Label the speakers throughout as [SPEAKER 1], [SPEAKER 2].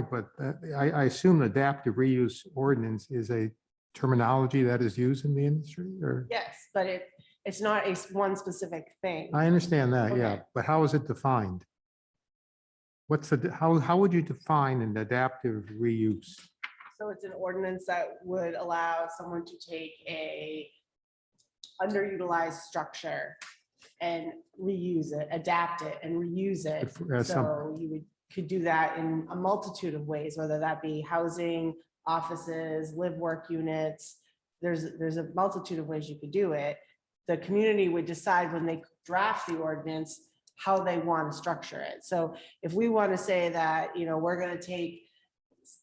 [SPEAKER 1] point, but uh, I, I assume adaptive reuse ordinance is a terminology that is used in the industry or?
[SPEAKER 2] Yes, but it, it's not a s- one specific thing.
[SPEAKER 1] I understand that, yeah,
[SPEAKER 2] Okay.
[SPEAKER 1] but how is it defined? What's the, how, how would you define an adaptive reuse?
[SPEAKER 2] So it's an ordinance that would allow someone to take a underutilized structure and reuse it, adapt it and reuse it.
[SPEAKER 1] If, uh, some-
[SPEAKER 2] So you would, could do that in a multitude of ways, whether that be housing, offices, live work units. There's, there's a multitude of ways you could do it. The community would decide when they draft the ordinance, how they want to structure it. So if we want to say that, you know, we're going to take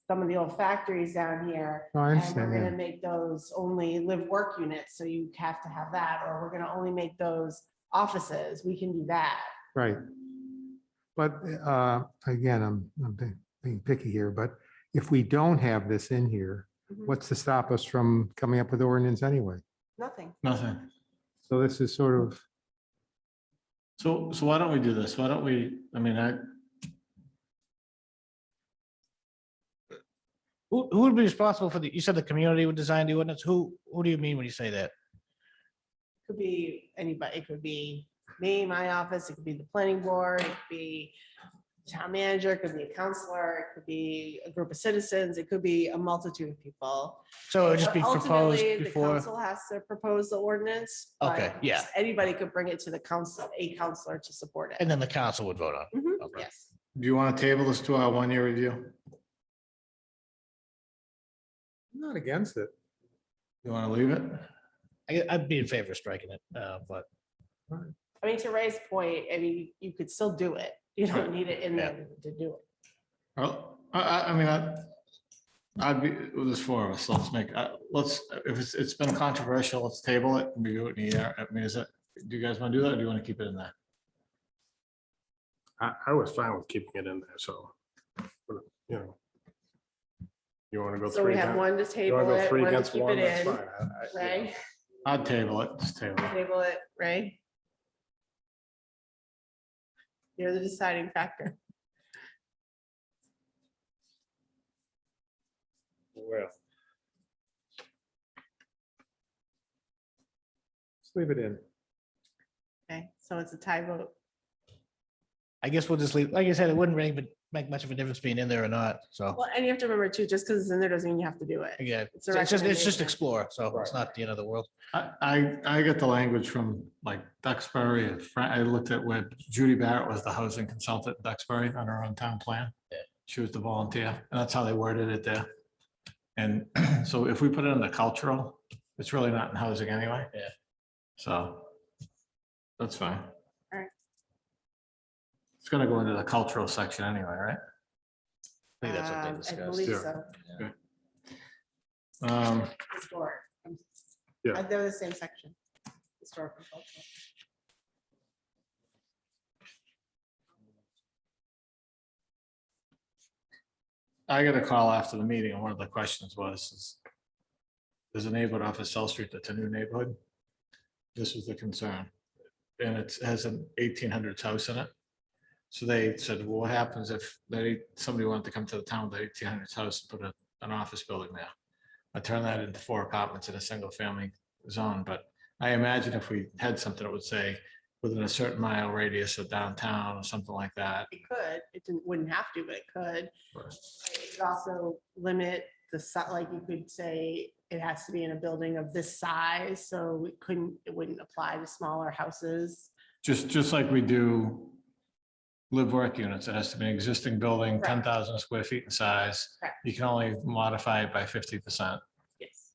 [SPEAKER 2] some of the old factories down here
[SPEAKER 1] No, I
[SPEAKER 2] and
[SPEAKER 1] understand,
[SPEAKER 2] we're
[SPEAKER 1] yeah.
[SPEAKER 2] gonna make those only live work units, so you have to have that, or we're gonna only make those offices, we can do that.
[SPEAKER 1] Right. But uh, again, I'm, I'm being- being picky here, but if we don't have this in here,
[SPEAKER 2] Mm-hmm.
[SPEAKER 1] what's to stop us from coming up with ordinance anyway?
[SPEAKER 2] Nothing.
[SPEAKER 3] Nothing.
[SPEAKER 1] So this is sort of,
[SPEAKER 2] Mm-hmm.
[SPEAKER 3] So, so why don't we do this? Why don't we, I mean, I.
[SPEAKER 4] Who, who would be responsible for the, you said the community would design the ordinance. Who, who do you mean when you say that?
[SPEAKER 2] Could be anybody, it could be me, my office, it could be the planning board, it could be town manager, it could be a counselor, it could be a group of citizens, it could be a multitude of people.
[SPEAKER 4] So it would just be
[SPEAKER 2] But
[SPEAKER 4] proposed
[SPEAKER 2] ultimately, the
[SPEAKER 4] before,
[SPEAKER 2] Council has to propose the ordinance. but
[SPEAKER 4] Okay, yeah.
[SPEAKER 2] Anybody could bring it to the council, a counselor to support it.
[SPEAKER 4] and then the council would vote on. it.
[SPEAKER 2] Mhm,
[SPEAKER 4] Okay.
[SPEAKER 2] Yes.
[SPEAKER 3] Do you want to table this to our one-year review?
[SPEAKER 1] I'm not against it.
[SPEAKER 3] You want to leave it?
[SPEAKER 4] I, I'd be in favor of striking it, uh, but
[SPEAKER 2] I mean, to Ray's point, I mean, you could still do it. You don't need it in there to do it.
[SPEAKER 3] Well, I, I, I mean, I. I'd be, well, there's four of us. so Let's make, I- let's, if it's, it's been controversial, let's table it. and Review it in a year. I mean, is it, do you guys want to do that or do you want to keep it in there?
[SPEAKER 5] I, I was fine with keeping it in there, so, but, you know. You want to go
[SPEAKER 2] So we
[SPEAKER 5] three
[SPEAKER 2] have
[SPEAKER 5] against,
[SPEAKER 2] one to
[SPEAKER 5] you
[SPEAKER 2] table
[SPEAKER 5] want to go
[SPEAKER 2] it,
[SPEAKER 5] three
[SPEAKER 2] one to
[SPEAKER 5] against
[SPEAKER 2] keep
[SPEAKER 5] one, that's
[SPEAKER 2] it
[SPEAKER 5] fine.
[SPEAKER 2] in,
[SPEAKER 5] I- I-
[SPEAKER 2] Ray,
[SPEAKER 3] I'd table it, just table it.
[SPEAKER 2] table it, Ray. You're the deciding factor.
[SPEAKER 5] Well,
[SPEAKER 1] Just leave it in.
[SPEAKER 2] Okay, so it's a tie vote.
[SPEAKER 4] I guess we'll just leave, like I said, it wouldn't really ma- make much of a difference being in there or not. So,
[SPEAKER 2] Well, and you have to remember too, just because it's in there doesn't mean you have to do it.
[SPEAKER 4] again,
[SPEAKER 2] It's a
[SPEAKER 4] it's just, it's just
[SPEAKER 2] recommendation.
[SPEAKER 4] explore. So it's not the end of the world.
[SPEAKER 3] I, I, I got the language from like Duxbury and Fra- I looked at where Judy Barrett was the housing consultant in Duxbury on her own town plan. She was the volunteer, and that's how they worded it there. And so if we put it in the cultural, it's really not in housing anyway.
[SPEAKER 4] Yeah.
[SPEAKER 3] So that's fine.
[SPEAKER 2] Alright.
[SPEAKER 3] It's gonna go into the cultural section anyway, right?
[SPEAKER 4] I think that's what they
[SPEAKER 2] Um, I
[SPEAKER 4] discussed.
[SPEAKER 2] believe
[SPEAKER 5] yeah.
[SPEAKER 2] so.
[SPEAKER 3] Um,
[SPEAKER 2] Historic. I'm-
[SPEAKER 5] Yeah.
[SPEAKER 2] Uh, They're the same section. Historic and cultural.
[SPEAKER 3] I got a call after the meeting, and one of the questions was, is there's a neighborhood off of South Street that's a new neighborhood. This was the concern, and it has an eighteen hundreds house in it. So they said, well, what happens if they, somebody wanted to come to the town with eighteen hundreds house and put a- an office building there? I turned that into four apartments in a single family zone, but I imagine if we had something that would say within a certain mile radius of downtown or something like that.
[SPEAKER 2] It could, it didn't, wouldn't have to, but it could.
[SPEAKER 3] Right.
[SPEAKER 2] It could Also limit the, si- like you could say, it has to be in a building of this size, so it couldn't, it wouldn't apply to smaller houses.
[SPEAKER 3] Just, just like we do live work units, it has to be an existing building,
[SPEAKER 2] Correct.
[SPEAKER 3] ten thousand square feet in size.
[SPEAKER 2] Correct.
[SPEAKER 3] You can only modify it by fifty percent.
[SPEAKER 2] Yes.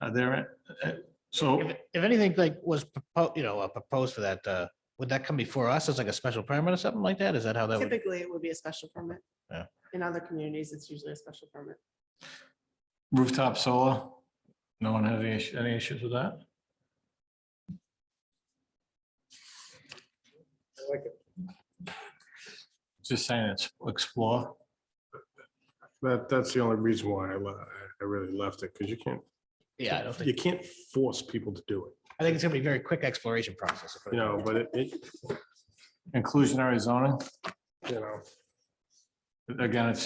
[SPEAKER 3] Are there, uh, so,
[SPEAKER 4] If, if anything like was, propo- you know, uh, proposed for that, uh, would that come before us as like a special permit or something like that? Is that how that would?
[SPEAKER 2] Typically, it would be a special permit.
[SPEAKER 4] Yeah.
[SPEAKER 2] In other communities, it's usually a special permit.
[SPEAKER 3] rooftop solar, no one had any, issue- any issues with that? Just saying, it's explore.
[SPEAKER 5] That, that's the only reason why I, le- I really left it, because you can't,
[SPEAKER 4] Yeah, I don't
[SPEAKER 5] you
[SPEAKER 4] think,
[SPEAKER 5] can't force people to do it,
[SPEAKER 4] I think it's gonna be a very quick exploration process. if
[SPEAKER 5] you know, but it, it,
[SPEAKER 3] Inclusionary zoning,
[SPEAKER 5] you know.
[SPEAKER 3] Again, it's